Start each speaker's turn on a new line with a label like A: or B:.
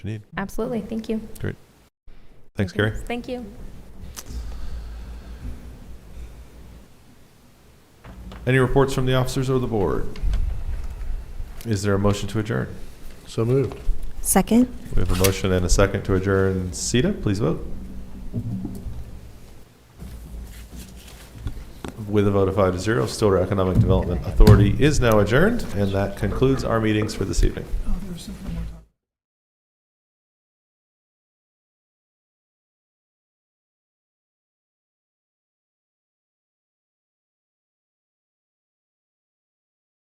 A: you need.
B: Absolutely. Thank you.
A: Thanks, Gary.
B: Thank you.
A: Any reports from the officers or the board? Is there a motion to adjourn?
C: So moved.
D: Second?
A: We have a motion and a second to adjourn. Sita, please vote. With a vote of five to zero, Stillwater Economic Development Authority is now adjourned, and that concludes our meetings for this evening.